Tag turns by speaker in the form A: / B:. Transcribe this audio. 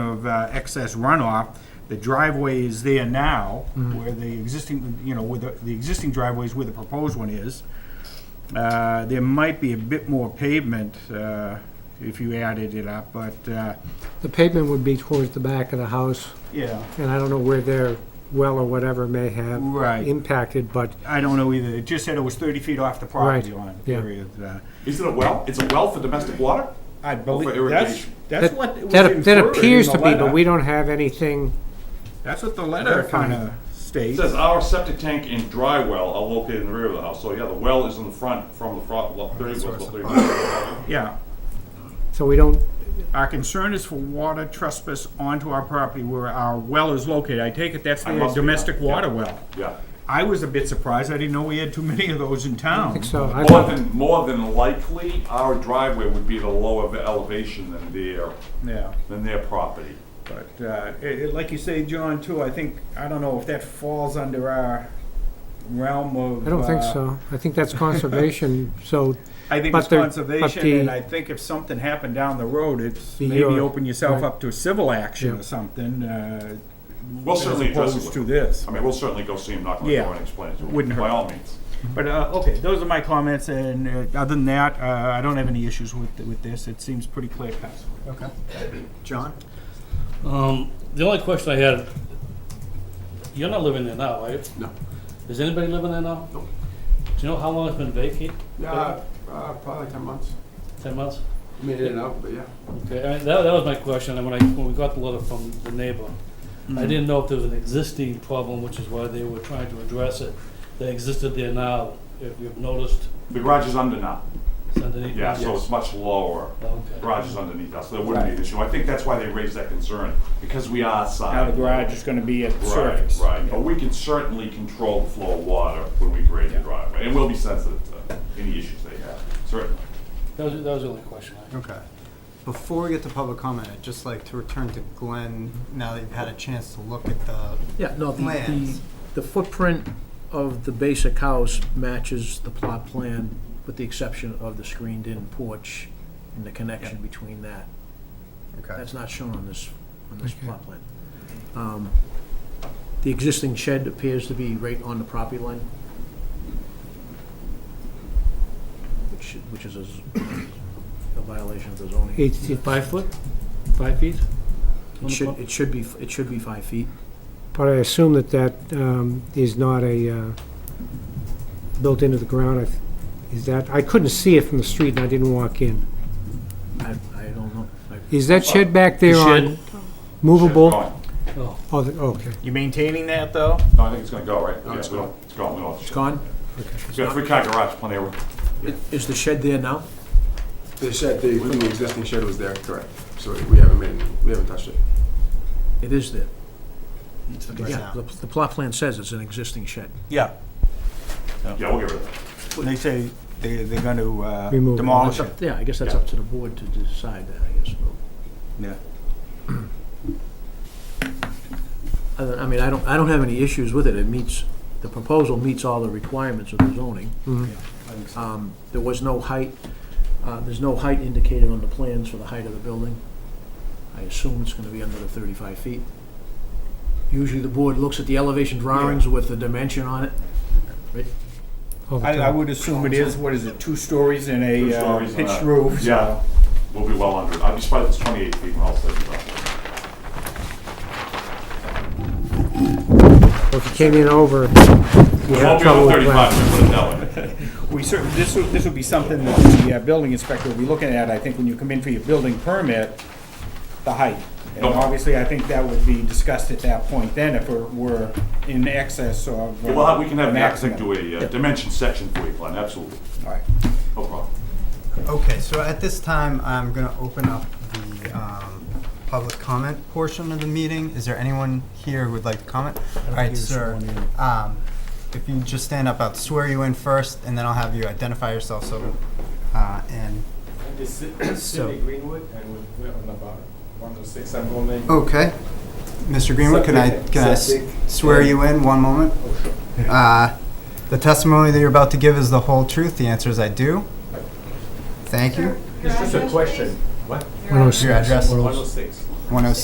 A: of uh, excess runoff. The driveway is there now,
B: Mm-hmm.
A: where the existing, you know, where the, the existing driveway is where the proposed one is. Uh, There might be a bit more pavement uh, if you added it up, but, uh,
B: The pavement would be towards the back of the house,
A: yeah,
B: and I don't know where their well or whatever may have
A: right.
B: impacted, but
A: I don't know either. It just said it was 30 feet off the property line,
B: yeah.
A: period. Uh,
C: Is it a well? It's a well for domestic water?
A: I
C: Over
A: believe, that's,
C: irrigation.
A: that's what
B: that
A: was
B: that
A: inferred
B: that
A: in
B: appears
A: the
B: to be, but
A: letter.
B: we don't have anything,
A: That's what the letter kind of
C: It
A: states.
C: says our septic tank and dry well are located in the rear of the house. So yeah, the well is in the front from the front, well, thirty, well, thirty.
A: Yeah.
B: so we don't,
A: Our concern is for water trespass onto our property where our well is located. I take it that's
C: I
A: the
C: must be
A: domestic
C: right, yeah.
A: water well.
C: Yeah.
A: I was a bit surprised. I didn't know we had too many of those in town.
B: so I
C: More
B: thought,
C: than, more than likely, our driveway would be at a lower elevation than their,
A: Yeah,
C: than their property.
A: but, uh, it, it- like you say, John, too, I think, I don't know if that falls under our realm of.
B: I don't think
A: uh,
B: so. I think that's conservation, so
A: I think
B: But
A: it's
B: the- but
A: conservation,
B: the-
A: and I think if something happened down the road, it's
B: The-
A: maybe
B: your-
A: open yourself
B: right.
A: up to a civil action or
B: Yeah.
A: something, uh,
C: We'll
A: as
C: certainly address
A: opposed
C: it
A: to
C: with them.
A: this.
C: I mean, we'll certainly go see him, knock on the
A: Yeah.
C: door and explain it to him.
A: Wouldn't hurt.
C: By all means.
A: But, uh, okay, those are my comments, and uh, other than that, uh, I don't have any issues with, with this. It seems pretty clear cut.
D: Okay. John?
E: Um, the only question I had, you're not living there now, right?
D: No.
E: Is anybody living there now?
D: Nope.
E: Do you know how long it's been vacant?
D: Yeah, uh, probably ten months.
E: Ten months?
D: I mean, in and out, but yeah.
E: Okay, I, that, that was my question, and when I, when we got the letter from the neighbor, I didn't know if there was an existing problem, which is why they were trying to address it, that existed there now, if you've noticed,
C: The garage is under now.
E: it's underneath.
C: Yeah, so
E: Yes.
C: it's much lower.
E: Okay.
C: Garage is underneath us, so there wouldn't be an issue. I think that's why they raised that concern, because we are side.
A: Now the garage is gonna be at the surface.
C: Right, right, but we can certainly control the flow of water when we grade the driveway, and we'll be sensitive to any issues they have, certainly.
E: That was, that was the only question I had.
D: Okay. Before we get to public comment, I'd just like to return to Glenn, now that you've had a chance to look at the,
F: Yeah, no, the, the,
D: Plans.
F: the footprint of the basic house matches the plot plan, with the exception of the screened-in porch and the connection between that.
D: okay,
F: That's not shown on this, on this plot plan. Um, The existing shed appears to be right on the property line. Which, which is a z- a violation of the zoning.
B: eight, five foot, five feet?
F: It should, it should be, it should be five feet.
B: But I assume that that um, is not a, uh, built into the ground, I th- is that, I couldn't see it from the street and I didn't walk in.
F: I, I don't know. I-
B: Is that shed back there on
E: Shed,
B: movable?
C: Gone.
E: oh,
B: Oh, the- okay.
D: You maintaining that, though?
C: No, I think it's gonna go, right? Yeah,
D: it's
C: we don't- It's gone, we don't.
F: It's gone?
C: It's got a three-car garage, plenty of room.
F: Is the shed there now?
G: The shed, the, from the existing shed was there, correct. So we haven't made, we haven't touched it.
F: It is there.
D: It's the
F: Yeah, the, the plot plan says it's an existing shed.
A: Yeah,
C: Yeah, we'll get rid of that.
A: they say they, they're gonna uh,
B: Remove it.
A: demolish it.
F: Yeah, I guess that's up to the board to decide that, I guess.
A: Yeah.
F: I don't- I mean, I don't, I don't have any issues with it. It meets, the proposal meets all the requirements of the zoning. Um, There was no height, uh, there's no height indicated on the plans for the height of the building. I assume it's gonna be under the thirty-five feet. Usually the board looks at the elevation drawings with the dimension on it.
B: all Oh, the
A: I, I
B: time.
A: would assume it is, what is it, two stories and
C: Two
A: a uh,
C: stories and
A: pitched
C: a-
A: roof? so-
C: Yeah, we'll be well under it. I'd be surprised if it's twenty-eight feet when all said and done.
B: Well, If you came in over, you
C: It won't
B: have
C: be over
B: trouble with
C: thirty-five,
B: glass.
C: we put it that way.
A: We certainly, this would, this would be something that the uh, building inspector will be looking at, I think, when you come in for your building permit, the height. And
C: Okay.
A: obviously, I think that would be discussed at that point then if it were in excess of. uh,
C: Well, We'll, we can have an
A: maximum.
C: architect do a uh, dimension section for you, Glenn, absolutely,
A: All right.
C: no problem.
D: Okay, so at this time, I'm gonna open up the, um, public comment portion of the meeting. Is there anyone here who would like to comment? All right,
F: there's
D: sir,
F: someone
D: um, if you just stand up, I'll swear you in first, and then I'll have you identify yourself, so, uh, and
H: This is
D: So-
H: Cindy Greenwood, and we- we're on about 106, I'm only...
D: Okay. Mr. Greenwood, can I, can I s-
H: Septic. Oh,
D: swear you in one moment? Uh, The testimony that you're about to give is the whole truth. The answer is I do. Thank you.
H: It's just a question. What?
B: When I was-
D: Your address?
H: 106.
D: 106.